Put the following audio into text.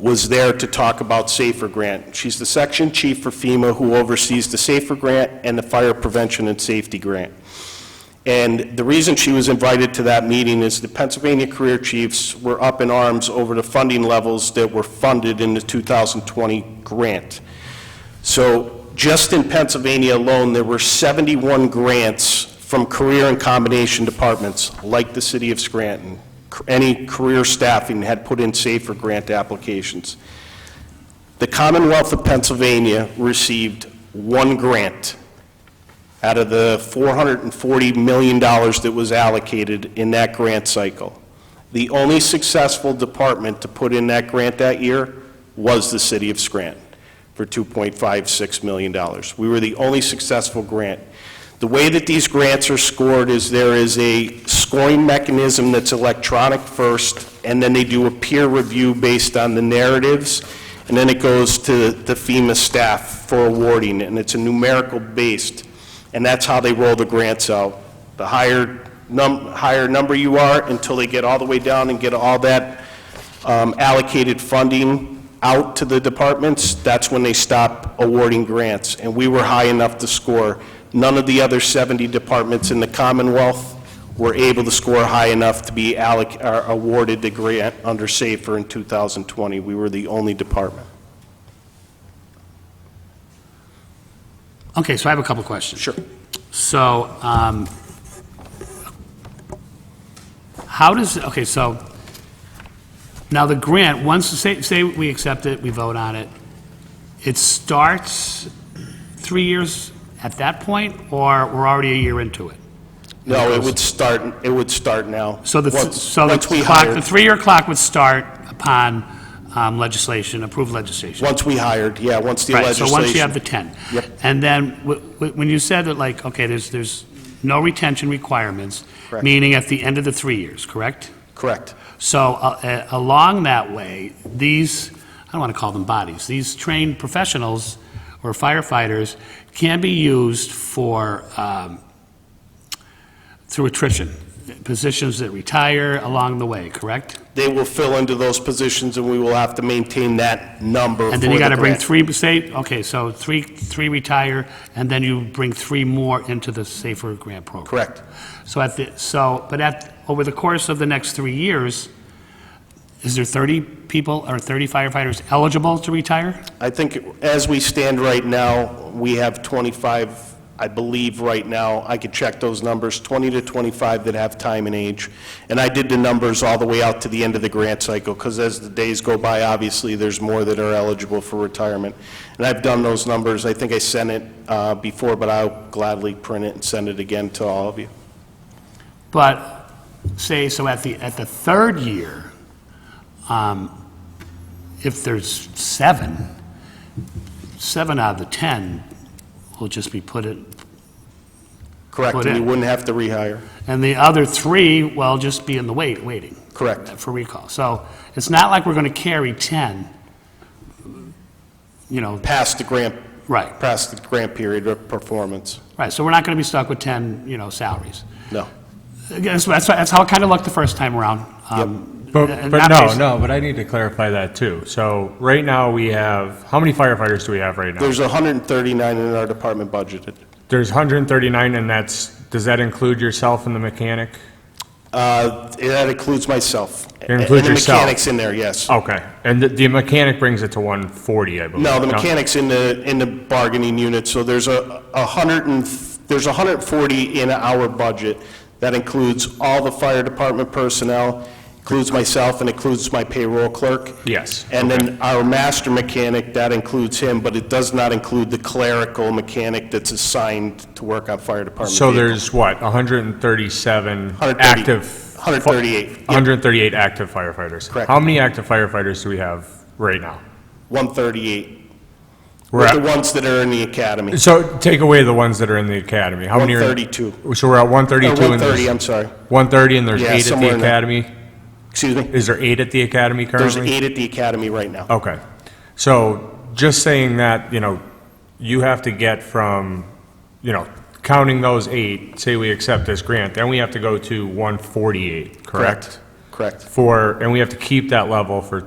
was there to talk about SAFER Grant. She's the section chief for FEMA who oversees the SAFER Grant and the Fire Prevention and Safety Grant. And the reason she was invited to that meeting is the Pennsylvania Career Chiefs were up in arms over the funding levels that were funded in the 2020 grant. So just in Pennsylvania alone, there were 71 grants from career and combination departments, like the city of Scranton. Any career staffing had put in safer grant applications. The Commonwealth of Pennsylvania received one grant out of the $440 million that was allocated in that grant cycle. The only successful department to put in that grant that year was the city of Scranton for $2.56 million. We were the only successful grant. The way that these grants are scored is there is a scoring mechanism that's electronic first, and then they do a peer review based on the narratives, and then it goes to the FEMA staff for awarding, and it's a numerical based, and that's how they roll the grants out. The higher num, higher number you are, until they get all the way down and get all that um, allocated funding out to the departments, that's when they stop awarding grants. And we were high enough to score. None of the other 70 departments in the Commonwealth were able to score high enough to be alloc, or awarded the grant under SAFER in 2020. We were the only department. Okay, so I have a couple questions. Sure. So, um, how does, okay, so, now the grant, once, say, say we accept it, we vote on it, it starts three years at that point, or we're already a year into it? No, it would start, it would start now. So the, Once- so the once we clock, hired- the three-year clock would start upon um, legislation, approved legislation? Once we hired, yeah, once the Right, so legislation. once you have the 10. Yep. And then, wh- wh- when you said that, like, okay, there's, there's no retention requirements, Correct. meaning at the end of the three years, correct? Correct. So uh, uh, along that way, these, I don't want to call them bodies, these trained professionals or firefighters can be used for, um, through attrition, positions that retire along the way, correct? They will fill into those positions, and we will have to maintain that number And then you for the got to bring grant. three, say, okay, so three, three retire, and then you bring three more into the Safer Grant Program. Correct. So at the, so, but at, over the course of the next three years, is there 30 people or 30 firefighters eligible to retire? I think as we stand right now, we have 25, I believe, right now, I could check those numbers, 20 to 25 that have time and age. And I did the numbers all the way out to the end of the grant cycle, because as the days go by, obviously, there's more that are eligible for retirement. And I've done those numbers, I think I sent it uh, before, but I'll gladly print it and send it again to all of you. But, say, so at the, at the third year, um, if there's seven, seven out of the 10 will just be put in, Correct, Put and you in. wouldn't have to rehire. and the other three will just be in the wait, waiting. Correct. for recall. So it's not like we're going to carry 10, you know, Past the grant, right, past the grant period of performance. right. So we're not going to be stuck with 10, you know, salaries. No. Again, so That's, that's how it kind of looked the first time around. Um, But, and but not no, based- no, but I need to clarify that too. So right now we have, how many firefighters do we have right now? There's 139 in our department budgeted. There's 139 and that's, does that include yourself and the mechanic? Uh, That includes myself. includes yourself. Oh. And the mechanic's in there, yes. Okay, and the, the mechanic brings it to 140, I believe. No, the mechanic's in the, in the bargaining unit, so there's a a hundred and, there's 140 in our budget. That includes all the fire department personnel, includes myself, and includes my payroll clerk. Yes. And then our master mechanic, that includes him, but it does not include the clerical mechanic that's assigned to work on fire department So vehicles. there's what, 137 130 active? 138, yep. 138 active firefighters. Correct. How many active firefighters do we have right now? 138, We're with the at, ones that are in the academy. so take away the ones that are in the academy. How many are? 132. So we're at Or 132 and 130, there's, I'm sorry. 130 and there's Yeah, eight at somewhere the in there. academy? Excuse me? Is there eight at the academy There's currently? eight at the academy right now. Okay. So just saying that, you know, you have to get from, you know, counting those eight, say we accept this grant, then we have to go to 148, correct? Correct. For, and we have to keep that level for